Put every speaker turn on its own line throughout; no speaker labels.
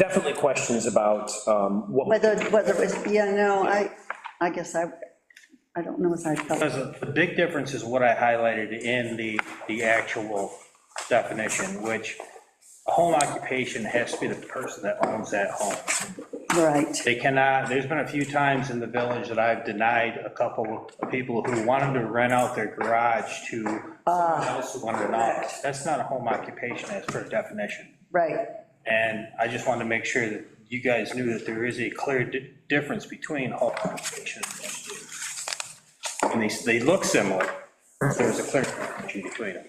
definitely questions about um, what.
Whether, whether it was, yeah, no, I, I guess I, I don't know if I felt,
Because the big difference is what I highlighted in the, the actual definition, which a home occupation has to be the person that owns that home.
right,
They cannot, there's been a few times in the village that I've denied a couple of people who wanted to rent out their garage to someone else who wanted an office. That's not a home occupation as per definition.
right,
And I just wanted to make sure that you guys knew that there is a clear di- difference between home occupation and these, they look similar, but there's a clear difference between them.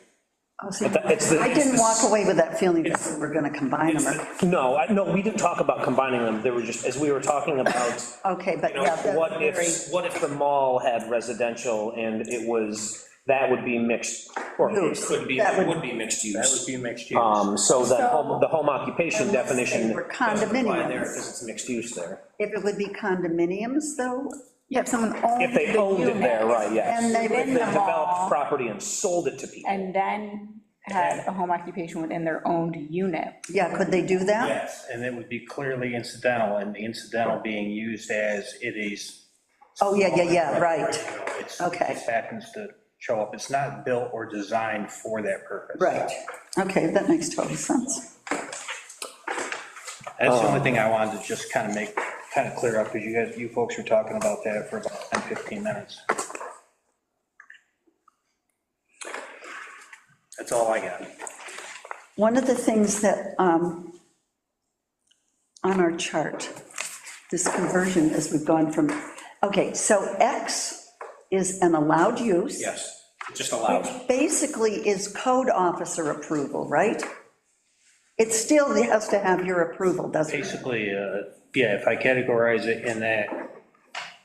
I'll Oh, see.
that- it's the-
I didn't walk away with that feeling that we we're gonna combine them, or-
No, I- no, we didn't talk about combining them, there were just, as we were talking about,
okay, but
you know,
yeah. that's
what
very-
if, what if the mall had residential and it was, that would be mixed, or it
Use.
could be,
That would-
it would be mixed
That would
use.
be mixed use.
Um, so the
So-
home, the home occupation
Unless they
definition.
were
doesn't apply there
condominiums.
Because it's mixed use there.
If it would be condominiums, though,
Yeah, if someone owned.
If they
the
owned it
unit
there, right, yes.
And they
If
wouldn't
have
developed
all-
property and sold it to people.
And then had a home occupation within their owned unit.
yeah, could they do that?
Yes, and it would be clearly incidental, and the incidental being used as it is.
Oh, yeah, yeah, yeah, right,
You know, it's-
Okay.
It just happens to show up. It's not built or designed for that purpose.
right, okay, that makes total sense.
That's the only thing I wanted to just kind of make, kind of clear up, because you guys, you folks were talking about that for about 10, 15 minutes. That's all I got.
One of the things that, um, on our chart, this conversion as we've gone from, okay, so X is an allowed use.
Yes, just allowed.
Basically is code officer approval, right? It still has to have your approval, doesn't it?
Basically, uh, yeah, if I categorize it in that,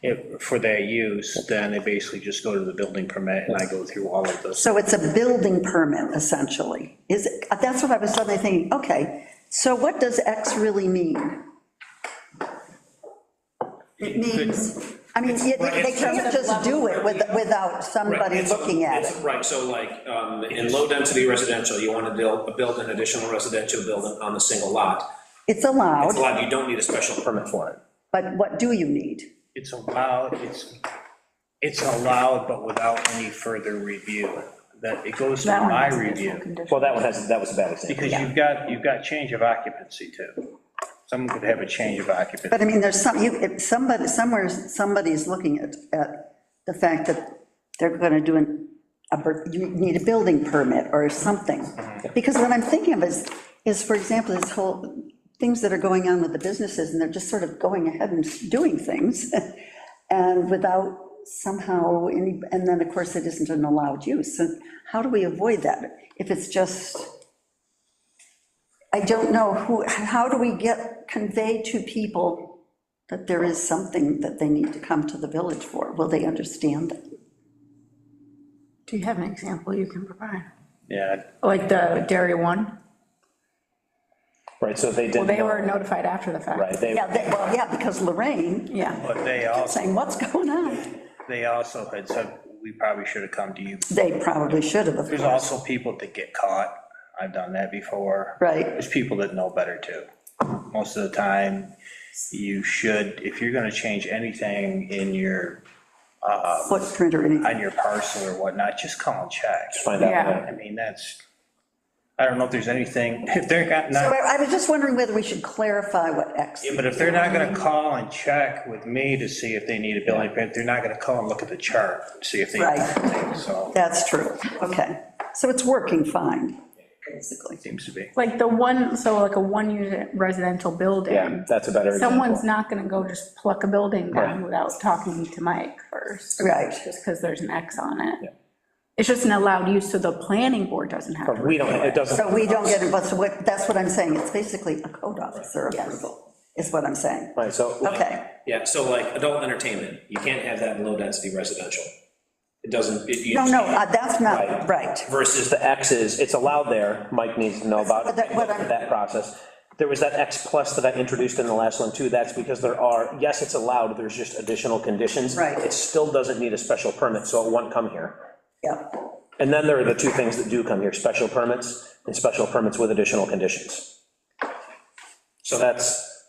if, for that use, then I basically just go to the building permit, and I go through all of this.
So it's a building permit essentially, is, it? that's what I was suddenly thinking, okay, so what does X really mean? It means, I mean, they they can't just do it with- without somebody
Right, it's-
looking at
it's-
it,
Right, so like, um, in low-density residential, you want to build, build an additional residential building on a single lot.
it's
It's
allowed,
allowed, you don't need a special permit for it.
but what do you need?
It's allowed, it's, it's allowed, but without any further review, that, it goes to
That one
my
has a special
review.
condition.
Well, that one has, that was a bad example.
Because you've got, you've got change of occupancy too. Someone could have a change of occupancy.
But I mean, there's some, you, if somebody, somewhere, somebody's looking at, at the fact that they're gonna do an, a, bur- you need a building permit or something. Because what I'm thinking of is, is, for example, this whole, things that are going on with the businesses, and they're just sort of going ahead and doing things, and without somehow, any and then, of course, it isn't an allowed use, and how do we avoid that? If it's just. I don't know who, how do we get, convey to people that there is something that they need to come to the village for? Will they understand that?
Do you have an example you can provide?
Yeah,
Like the dairy one?
Right, so they
Well,
didn't.
they
know.
were notified after the fact.
Right, they,
Yeah, they- well, yeah, because Lorraine
Yeah,
but they also,
saying, what's going on?
they also had said, we probably should have come to you.
They probably should have, of
There's
course.
also people that get caught. I've done that before.
Right.
There's people that know better too. Most of the time, you should, if you're gonna change anything in your,
footprint or anything.
on your parcel or whatnot, just call and check.
find out.
Yeah.
I mean, that's, I don't know if there's anything, if they're got-
So
not.
I I was just wondering whether we should clarify what X,
Yeah, But if they're not gonna call and check with me to see if they need a building permit, they're not gonna call and look at the chart, and see if they.
Right.
So,
that's true, okay. So it's working fine, basically.
seems to be.
like the one, so like a one-unit residential
Yeah,
building.
that's a better example.
Someone's not gonna go just pluck a building down without talking to Mike first.
Right.
Just because there's an X on it. It's just an allowed use, so the planning board doesn't have to.
We don't, it doesn't.
So we don't get it, but so what, that's what I'm saying, it's basically a code officer approval, is what I'm saying.
Right, so.
Okay,
Yeah, so like, adult entertainment, you can't have that in low-density residential. It doesn't, it- you.
no, no, uh, that's not, right.
Versus the
the X is, it's allowed there, Mike needs to know about
But that- what I'm-
that process. There was that X plus that I introduced in the last one too, that's because there are, yes, it's allowed, there's just additional conditions.
Right.
It still doesn't need a special permit, so it won't come here.
Yeah,
And then there are the two things that do come here, special permits and special permits with additional conditions. So that's,